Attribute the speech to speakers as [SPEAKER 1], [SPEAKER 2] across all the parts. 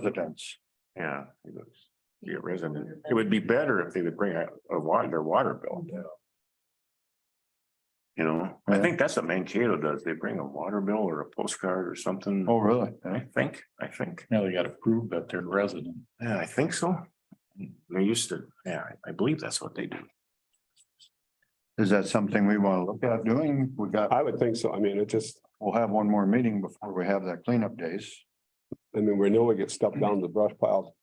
[SPEAKER 1] residents.
[SPEAKER 2] Yeah. he looks- Be a resident. It would be better if they would bring a, a water, their water bill. You know, I
[SPEAKER 1] Yeah.
[SPEAKER 2] think that's what Mankato does. They bring a water bill or a postcard or something.
[SPEAKER 1] Oh, really?
[SPEAKER 2] I think, I think.
[SPEAKER 3] Now they gotta prove that they're resident.
[SPEAKER 2] Yeah, I think so. They used to, yeah, I- I believe that's what they do.
[SPEAKER 1] Is that something we want to look at doing? We got,
[SPEAKER 4] I would think so. I mean, it just,
[SPEAKER 1] we'll have one more meeting before we have that cleanup days.
[SPEAKER 4] I mean, we know we get stuff down the brush pile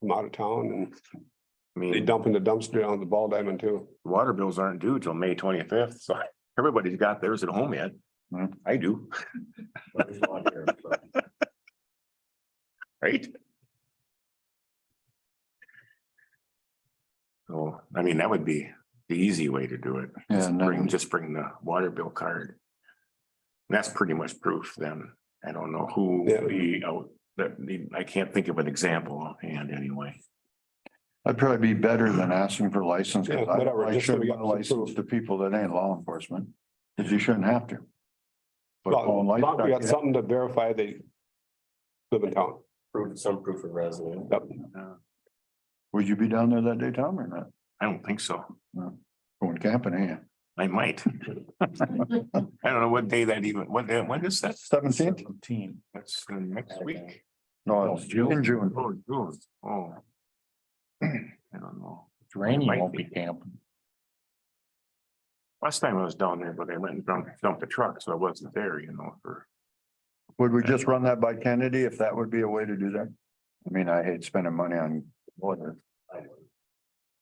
[SPEAKER 4] from out of town and
[SPEAKER 2] I
[SPEAKER 4] they
[SPEAKER 2] mean,
[SPEAKER 4] dump in the dumpster down at the ball diamond too.
[SPEAKER 2] water bills aren't due till May twenty-fifth, so everybody's got theirs at home yet.
[SPEAKER 1] Hmm.
[SPEAKER 2] I do. Right? So, I mean, that would be the easy way to do it.
[SPEAKER 1] Yeah,
[SPEAKER 2] Just
[SPEAKER 1] and
[SPEAKER 2] Bring,
[SPEAKER 1] then-
[SPEAKER 2] just bring the water bill card. And That's pretty much proof then. I don't know who
[SPEAKER 4] Yeah.
[SPEAKER 2] the, oh, that, I can't think of an example offhand anyway.
[SPEAKER 1] That'd probably be better than asking for license. 'cause
[SPEAKER 4] Yeah,
[SPEAKER 1] I
[SPEAKER 4] whatever,
[SPEAKER 1] I
[SPEAKER 4] just so
[SPEAKER 1] should
[SPEAKER 4] we
[SPEAKER 1] give
[SPEAKER 4] got some
[SPEAKER 1] license
[SPEAKER 4] proof.
[SPEAKER 1] to people that ain't law enforcement, because you shouldn't have to. But
[SPEAKER 4] But
[SPEAKER 1] on
[SPEAKER 4] as long as we got
[SPEAKER 1] license,
[SPEAKER 4] something to verify they live in town.
[SPEAKER 2] Proof, some proof of residence.
[SPEAKER 4] Yep.
[SPEAKER 1] Would you be down there that day, Tom, or not?
[SPEAKER 2] I don't think so.
[SPEAKER 1] Going camping, eh?
[SPEAKER 2] I might. I don't know what day that even, what, day- when is that?
[SPEAKER 1] Seventeenth?
[SPEAKER 3] Seventeen.
[SPEAKER 2] That's the next week.
[SPEAKER 1] No, it's in June.
[SPEAKER 2] Oh, June, oh. I don't know.
[SPEAKER 3] It's rainy,
[SPEAKER 2] Might
[SPEAKER 3] won't
[SPEAKER 2] be.
[SPEAKER 3] be camping.
[SPEAKER 2] Last time I was down there, but I went and dumped, dumped the truck, so I wasn't there, you know, for,
[SPEAKER 1] Would we just run that by Kennedy if that would be a way to do that? I mean, I hate spending money on water.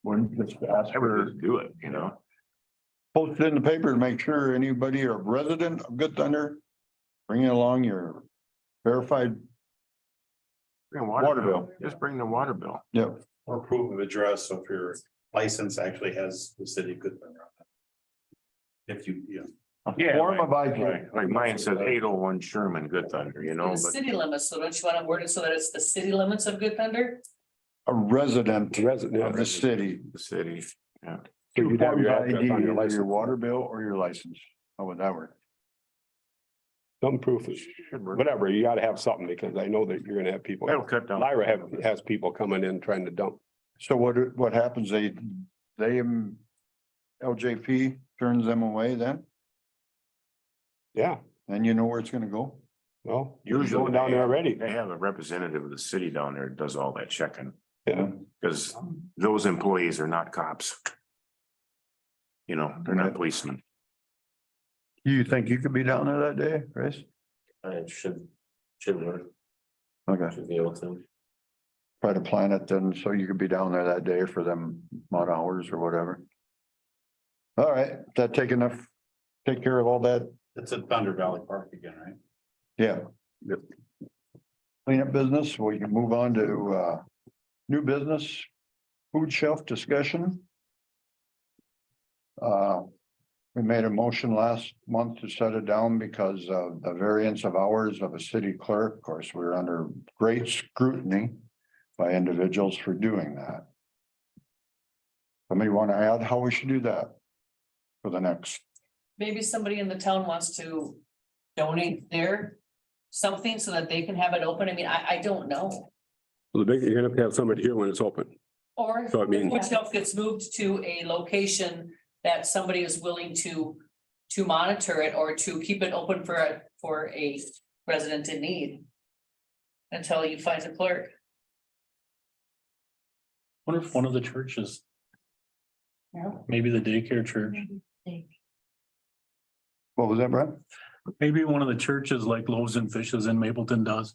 [SPEAKER 1] Wouldn't just ask
[SPEAKER 2] I would
[SPEAKER 1] for,
[SPEAKER 2] just do it, you know?
[SPEAKER 1] post it in the paper to make sure anybody or resident of Good Thunder, bring along your verified,
[SPEAKER 2] Bring a
[SPEAKER 1] Water
[SPEAKER 2] water bill,
[SPEAKER 1] bill.
[SPEAKER 2] just bring the water bill.
[SPEAKER 1] yeah,
[SPEAKER 5] or proof of address, so if your license actually has the city of Goodman. on it. If you, yeah.
[SPEAKER 2] Yeah,
[SPEAKER 1] form of ID.
[SPEAKER 2] Like like mine says eight oh one Sherman, Good Thunder, you know,
[SPEAKER 6] The
[SPEAKER 2] but
[SPEAKER 6] city limits, so don't you want to word it so that it's the city limits of Good Thunder?
[SPEAKER 1] a resident
[SPEAKER 4] Resident.
[SPEAKER 1] of the city.
[SPEAKER 2] the city.
[SPEAKER 4] So you'd have
[SPEAKER 1] Form
[SPEAKER 4] your
[SPEAKER 1] of
[SPEAKER 4] address
[SPEAKER 1] ID,
[SPEAKER 4] on your
[SPEAKER 1] either your
[SPEAKER 4] license.
[SPEAKER 1] water bill or your license. How would that work?
[SPEAKER 4] Some proof is,
[SPEAKER 2] should work.
[SPEAKER 4] whatever, you gotta have something because I know that you're gonna have people.
[SPEAKER 2] That'll cut down.
[SPEAKER 4] Lyra have, has people coming in trying to dump.
[SPEAKER 1] So what, what happens? They, they, um, LJP turns them away then?
[SPEAKER 4] Yeah,
[SPEAKER 1] Then you know where it's gonna go?
[SPEAKER 4] well, you're
[SPEAKER 2] Usually
[SPEAKER 4] going down there already.
[SPEAKER 2] They have a representative of the city down there that does all that checking.
[SPEAKER 4] Yeah.
[SPEAKER 2] Cause those employees are not cops. You know, they're not
[SPEAKER 1] Right.
[SPEAKER 2] policemen.
[SPEAKER 1] You think you could be down there that day, Chris?
[SPEAKER 5] I should, should work,
[SPEAKER 1] Okay.
[SPEAKER 5] should be able to.
[SPEAKER 1] Try to plan it then, so you could be down there that day for them odd hours or whatever. All right, that take enough, take care of all that,
[SPEAKER 5] It's at Thunder Valley Park again, right?
[SPEAKER 1] yeah. Cleanup business, we can move on to uh, new business, food shelf discussion. Uh, we made a motion last month to set it down because of the variance of hours of a city clerk. Of course, we're under great scrutiny by individuals for doing that. Somebody want to add how we should do that for the next,
[SPEAKER 6] Maybe somebody in the town wants to donate their something so that they can have it open. I mean, I, I don't know.
[SPEAKER 4] The big, you're gonna have to have somebody here when it's open.
[SPEAKER 6] Or
[SPEAKER 4] So I
[SPEAKER 2] Mm.
[SPEAKER 4] mean-
[SPEAKER 6] which stuff gets moved to a location that somebody is willing to, to monitor it or to keep it open for, a for a resident in need. Until you find a clerk.
[SPEAKER 3] Wonder if one of the churches,
[SPEAKER 6] Yeah.
[SPEAKER 3] maybe the daycare church,
[SPEAKER 1] what was that, Brad?
[SPEAKER 3] maybe one of the churches like Loaves and Fishes in Mapleton does.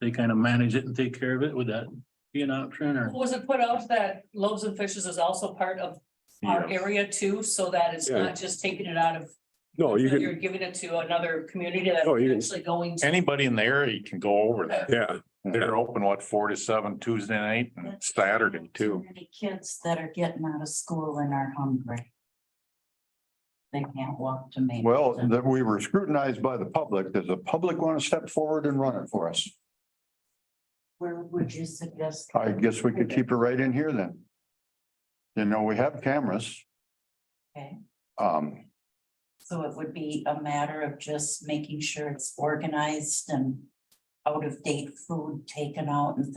[SPEAKER 3] They kind of manage it and take care of it. Would that be an option or?
[SPEAKER 6] Was it put out that loaves and fishes is also part of our
[SPEAKER 2] Yeah.
[SPEAKER 6] area too, so that it's
[SPEAKER 4] Yeah.
[SPEAKER 6] not just taking it out of,
[SPEAKER 4] No, you
[SPEAKER 6] you're
[SPEAKER 4] can,
[SPEAKER 6] giving it to another community that's
[SPEAKER 4] Oh, you can-
[SPEAKER 6] actually going to.
[SPEAKER 7] Anybody in the area can go over that.
[SPEAKER 4] yeah,
[SPEAKER 7] They're open, what, four to seven Tuesday night and Saturday too.
[SPEAKER 8] Many kids that are getting out of school and are hungry. They can't walk to me.
[SPEAKER 1] Well, that we were scrutinized by the public. Does the public want to step forward and run it for us?
[SPEAKER 8] Where would you suggest?
[SPEAKER 1] I guess we could keep it right in here then. You know, we have cameras.
[SPEAKER 8] Okay.
[SPEAKER 1] Um,
[SPEAKER 8] So it would be a matter of just making sure it's organized and
[SPEAKER 6] out of date food taken out and